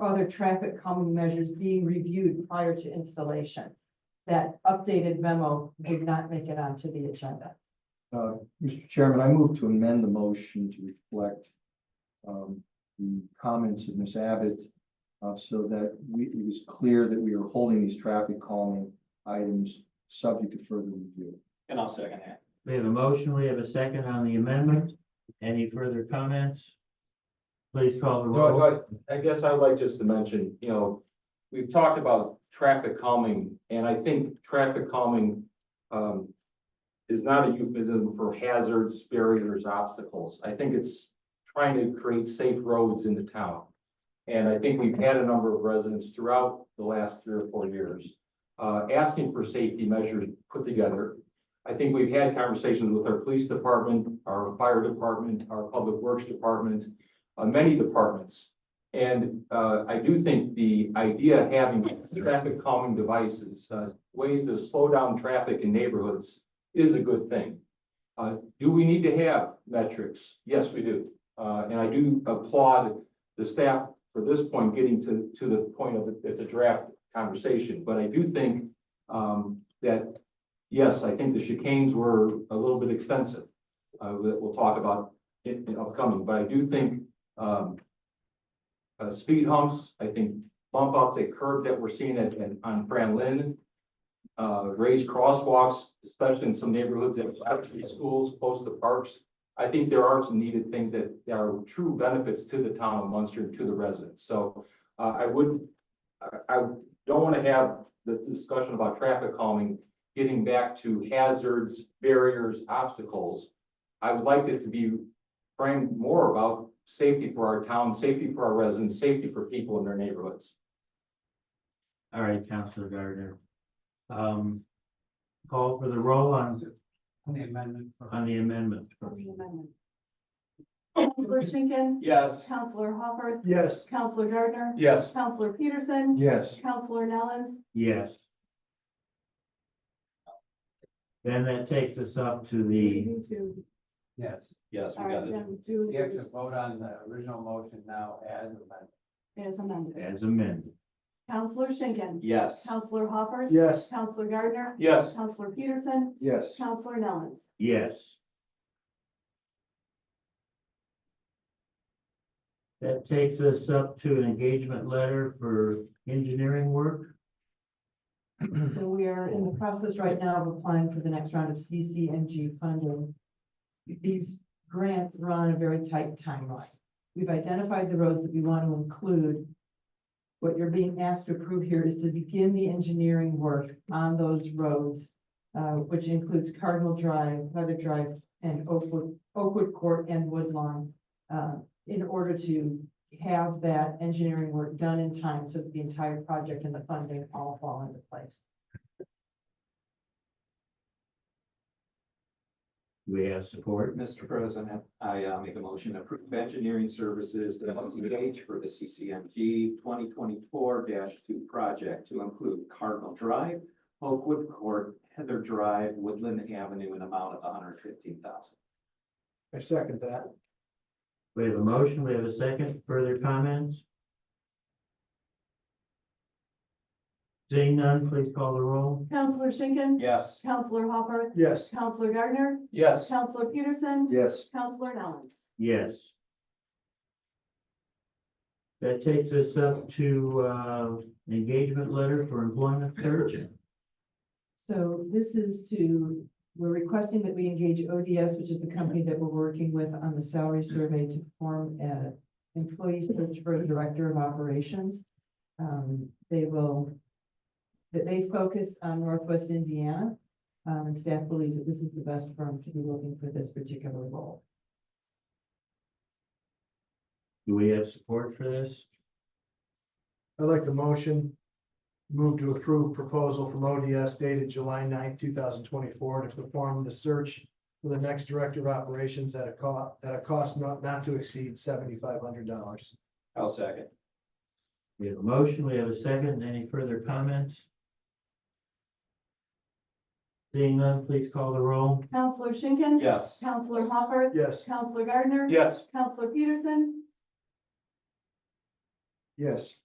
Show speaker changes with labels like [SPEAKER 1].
[SPEAKER 1] other traffic calming measures being reviewed prior to installation. That updated memo did not make it onto the agenda.
[SPEAKER 2] Uh, Mr. Chairman, I move to amend the motion to reflect um, the comments of Ms. Abbott uh, so that we, it is clear that we are holding these traffic calming items subject to further review.
[SPEAKER 3] And I'll second that.
[SPEAKER 4] We have a motion, we have a second on the amendment. Any further comments? Please call the
[SPEAKER 5] No,
[SPEAKER 4] roll.
[SPEAKER 5] I, I guess I'd like just to mention, you know, we've talked about traffic calming, and I think traffic calming um, is not a euphemism for hazards, barriers, obstacles. I think it's trying to create safe roads in the town. And I think we've had a number of residents throughout the last three or four years uh, asking for safety measures put together. I think we've had conversations with our police department, our fire department, our public works department, uh, many departments. And uh, I do think the idea of having traffic calming devices, uh, ways to slow down traffic in neighborhoods is a good thing. Uh, Do we need to have metrics? Yes, we do. Uh, And I do applaud the staff for this point, getting to, to the point of it- it's a draft conversation. But I do think um, that, yes, I think the chicanes were a little bit extensive. uh, that We'll talk about in in upcoming, but I do think um, uh, speed humps, I think bump outs at curb that we're seeing at, at- on Fran Lin. Uh, raised crosswalks, especially in some neighborhoods that are out to schools, close to parks. I think there are some needed things that that are true benefits to the town of Munster and to the residents. So uh, I would, I, I don't want to have the discussion about traffic calming, getting back to hazards, barriers, obstacles. I would like it to be framed more about safety for our town, safety for our residents, safety for people in their neighborhoods.
[SPEAKER 4] All right, Counselor Gardner. Um, call for the roll on,
[SPEAKER 3] On the amendment.
[SPEAKER 4] on the amendment.
[SPEAKER 6] Counselor Schinkin.
[SPEAKER 3] Yes.
[SPEAKER 6] Counselor Hopper.
[SPEAKER 2] Yes.
[SPEAKER 6] Counselor Gardner.
[SPEAKER 3] Yes.
[SPEAKER 6] Counselor Peterson.
[SPEAKER 2] Yes.
[SPEAKER 6] Counselor Nellens.
[SPEAKER 4] Yes. Then that takes us up to the,
[SPEAKER 6] Me too.
[SPEAKER 3] Yes. Yes,
[SPEAKER 6] All right, then do
[SPEAKER 3] You have to vote on the original motion now as amended.
[SPEAKER 6] as amended.
[SPEAKER 4] as amended.
[SPEAKER 6] Counselor Schinkin.
[SPEAKER 3] Yes.
[SPEAKER 6] Counselor Hopper.
[SPEAKER 2] Yes.
[SPEAKER 6] Counselor Gardner.
[SPEAKER 3] Yes.
[SPEAKER 6] Counselor Peterson.
[SPEAKER 2] Yes.
[SPEAKER 6] Counselor Nellens.
[SPEAKER 4] Yes. That takes us up to an engagement letter for engineering work.
[SPEAKER 1] So we are in the process right now of applying for the next round of CCNG funding. These grants run a very tight timeline. We've identified the roads that we want to include. What you're being asked to approve here is to begin the engineering work on those roads, uh, which includes Cardinal Drive, Leather Drive, and Oakwood, Oakwood Court and Woodlawn, uh, in order to have that engineering work done in time so that the entire project and the funding all fall into place.
[SPEAKER 4] We have support.
[SPEAKER 7] Mr. President, I uh, make a motion to approve engineering services to LCH for the CCMG twenty twenty-four two project to include Cardinal Drive, Oakwood Court, Heather Drive, Woodland Avenue, an amount of hundred fifteen thousand.
[SPEAKER 2] I second that.
[SPEAKER 4] We have a motion, we have a second, further comments? Seeing none, please call the roll.
[SPEAKER 6] Counselor Schinkin.
[SPEAKER 3] Yes.
[SPEAKER 6] Counselor Hopper.
[SPEAKER 2] Yes.
[SPEAKER 6] Counselor Gardner.
[SPEAKER 3] Yes.
[SPEAKER 6] Counselor Peterson.
[SPEAKER 2] Yes.
[SPEAKER 6] Counselor Nellens.
[SPEAKER 4] Yes. That takes us up to, uh, engagement letter for employment search.
[SPEAKER 1] So this is to, we're requesting that we engage ODS, which is the company that we're working with on the salary survey to form an employee search for a director of operations. Um, they will, that they focus on Northwest Indiana. Um, and staff believes that this is the best firm to be looking for this particular role.
[SPEAKER 4] Do we have support for this?
[SPEAKER 8] I'd like the motion. Move to approve proposal from ODS dated July 9th, two thousand twenty-four to perform the search for the next director of operations at a cost, at a cost not, not to exceed seventy-five hundred dollars.
[SPEAKER 7] I'll second.
[SPEAKER 4] We have a motion, we have a second, any further comments? Seeing none, please call the roll.
[SPEAKER 6] Counselor Schinkin.
[SPEAKER 7] Yes.
[SPEAKER 6] Counselor Hopper.
[SPEAKER 8] Yes.
[SPEAKER 6] Counselor Gardner.
[SPEAKER 3] Yes.
[SPEAKER 6] Counselor Peterson.
[SPEAKER 2] Yes.